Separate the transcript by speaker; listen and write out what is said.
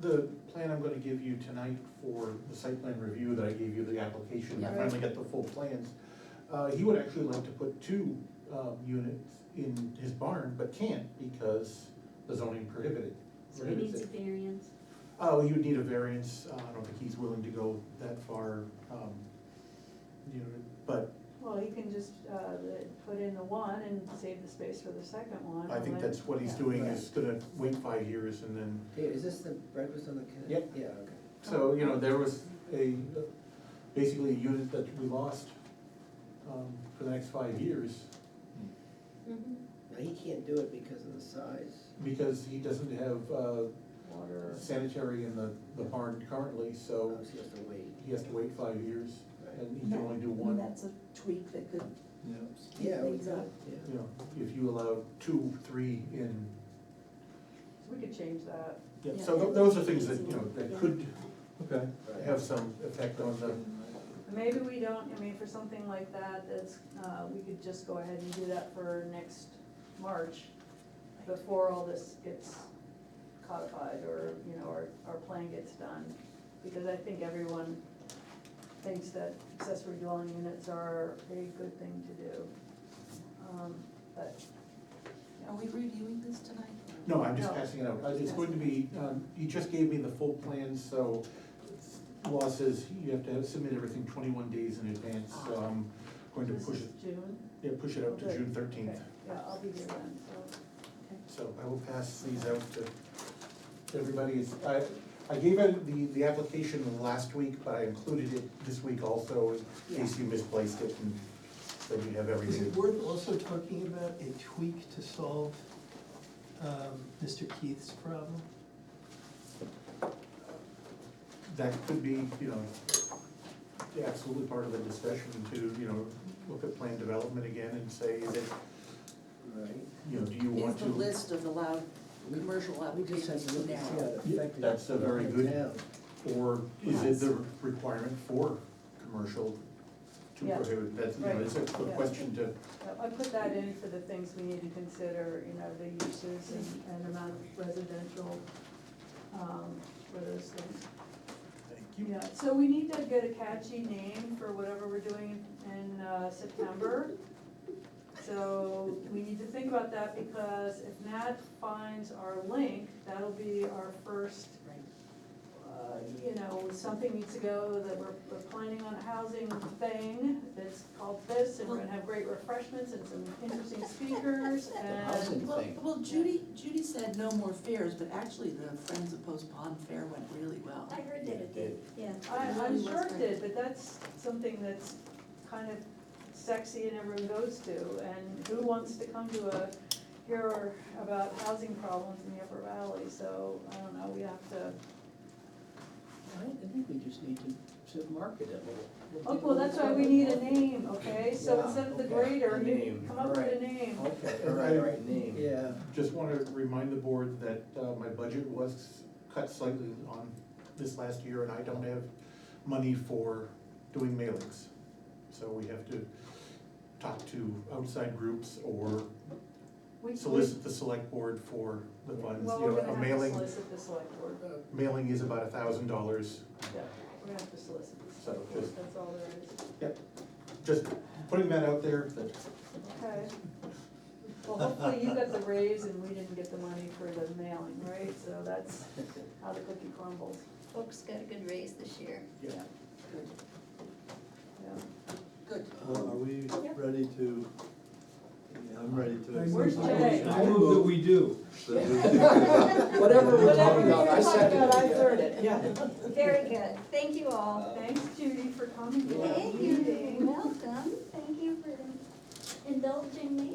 Speaker 1: the plan I'm gonna give you tonight for the site plan review that I gave you the application, I
Speaker 2: Yeah.
Speaker 1: finally got the full plans. Uh, he would actually like to put two, um, units in his barn, but can't because the zoning prohibited.
Speaker 2: So he
Speaker 1: prohibits
Speaker 2: needs a
Speaker 1: it.
Speaker 2: variance.
Speaker 1: Uh, well, you'd need a variance, uh, I don't think he's willing to go that far, um, you know, but
Speaker 3: Well, he can just, uh, the- put in the one and save the space for the second one.
Speaker 1: I think
Speaker 3: and
Speaker 1: that's what he's
Speaker 4: Yeah.
Speaker 1: doing, is gonna wait five years and then
Speaker 4: Peter, is this the breakfast on the Kennedy?
Speaker 1: Yep.
Speaker 4: Yeah, okay.
Speaker 1: So, you know, there was a, basically a unit that we lost um, for the next five years
Speaker 2: Mhm.
Speaker 4: Now, he can't do it because of the size.
Speaker 1: because he doesn't have uh,
Speaker 4: Water.
Speaker 1: sanitary in the, the barn currently, so
Speaker 4: Oh, so he has to wait.
Speaker 1: he has to wait five years and he can only do
Speaker 5: That-
Speaker 1: one.
Speaker 5: That's a tweak that could,
Speaker 4: Yeah, we
Speaker 5: Things up.
Speaker 4: could,
Speaker 1: You
Speaker 4: yeah.
Speaker 1: know, if you allow two, three in,
Speaker 3: So we could change that.
Speaker 1: yeah,
Speaker 5: Yeah.
Speaker 1: so tho- those are things that, you know, that could
Speaker 4: Right.
Speaker 1: have some effect on the,
Speaker 3: Maybe we don't, I mean, for something like that, that's, uh, we could just go ahead and do that for next March, before all this gets codified, or, you know, our, our plan gets done. Because I think everyone thinks that accessory dwelling units are a good thing to do. Um, But
Speaker 5: are we reviewing this tonight?
Speaker 1: no, I'm just
Speaker 3: No.
Speaker 1: passing it out. Uh, It's going to be, um, he just gave me the full plan, so law says you have to have- submit everything twenty-one days in advance, so I'm going to
Speaker 3: Ah. this
Speaker 1: push
Speaker 3: is
Speaker 1: it,
Speaker 3: June,
Speaker 1: yeah, push it out to
Speaker 3: Okay.
Speaker 1: June
Speaker 3: okay,
Speaker 1: thirteenth.
Speaker 3: yeah, I'll be here then, so.
Speaker 1: So I will pass these out to everybody. It's- I, I gave out the, the application last week, but I included it this week also, in case you misplaced it, and then you have
Speaker 6: Is
Speaker 1: everything.
Speaker 6: it worth also talking about a tweak to solve um, Mr. Keith's problem?
Speaker 1: That could be, you know, absolutely part of the discussion to, you know, look at plan development again and say, is it
Speaker 4: Right.
Speaker 1: you know, do you
Speaker 5: Is
Speaker 1: want to?
Speaker 5: the list of allowed commercial
Speaker 4: We just have
Speaker 5: applications
Speaker 4: to look and see how
Speaker 5: now?
Speaker 4: it affected.
Speaker 1: That's a very
Speaker 4: the
Speaker 1: good-
Speaker 4: town.
Speaker 1: Or is it the requirement for commercial to
Speaker 3: Yeah.
Speaker 1: prohibit, that's, you know,
Speaker 3: Right.
Speaker 1: it's a good
Speaker 3: Yeah.
Speaker 1: question to,
Speaker 3: I put that in for the things we need to consider, you know, the uses and, and amount of residential, um, for those things.
Speaker 1: thank you.
Speaker 3: Yeah, so we need to get a catchy name for whatever we're doing in, uh, September. So we need to think about that because if Nat finds our link, that'll be our first
Speaker 5: Right.
Speaker 3: uh, you know, something needs to go, that we're, we're planning on a housing thing, that's called this, and we're gonna have great refreshments and some interesting speakers,
Speaker 4: The housing
Speaker 3: and,
Speaker 5: Well,
Speaker 4: thing.
Speaker 5: well, Judy, Judy said no more fairs, but actually the Friends of Post Pond Fair went really well.
Speaker 7: I heard that it did, yeah.
Speaker 3: I, I'm sure it did, but that's something that's kind of sexy and everyone goes to, and who wants to come to a, hear about housing problems in the Upper Valley, so, I don't know, we have to,
Speaker 4: I I think we just need to, to market it a little.
Speaker 3: oh, well, that's why we need a name, okay, so
Speaker 4: Yeah,
Speaker 3: instead of the
Speaker 4: okay,
Speaker 3: grader,
Speaker 4: a
Speaker 3: you
Speaker 4: name, Oh,
Speaker 3: come up with a name.
Speaker 4: alright. Okay, all right, all right, name. Yeah.
Speaker 1: Just wanna remind the board that, uh, my budget was cut slightly on this last year, and I don't have money for doing mailings. So we have to talk to outside groups or
Speaker 3: We- we-
Speaker 1: solicit the select board for the funds,
Speaker 3: Well,
Speaker 1: you
Speaker 3: we're
Speaker 1: know, a
Speaker 3: gonna have to
Speaker 1: mailing,
Speaker 3: solicit the select board,
Speaker 1: uh, mailing is about a thousand dollars,
Speaker 3: yeah, we're gonna have to solicit the
Speaker 1: So,
Speaker 3: select board,
Speaker 1: just-
Speaker 3: that's all there is.
Speaker 1: just putting that out there, that
Speaker 3: Okay. Well, hopefully you got the raise and we didn't get the money for the mailing, right? So that's how the cookie crumbles,
Speaker 7: Folks got a good raise this year.
Speaker 1: Yeah.
Speaker 5: Good,
Speaker 3: yeah.
Speaker 5: Good.
Speaker 8: Uh, Are we ready to, I'm ready to.
Speaker 3: Where's Jay?
Speaker 8: I move that we do.
Speaker 4: Whatever we're talking about, I second it.
Speaker 5: I
Speaker 4: yeah.
Speaker 5: third it, yeah.
Speaker 7: Very good, thank you all.
Speaker 3: Thanks Judy for coming to the
Speaker 7: Thank you,
Speaker 3: meeting.
Speaker 7: welcome, thank you for indulging me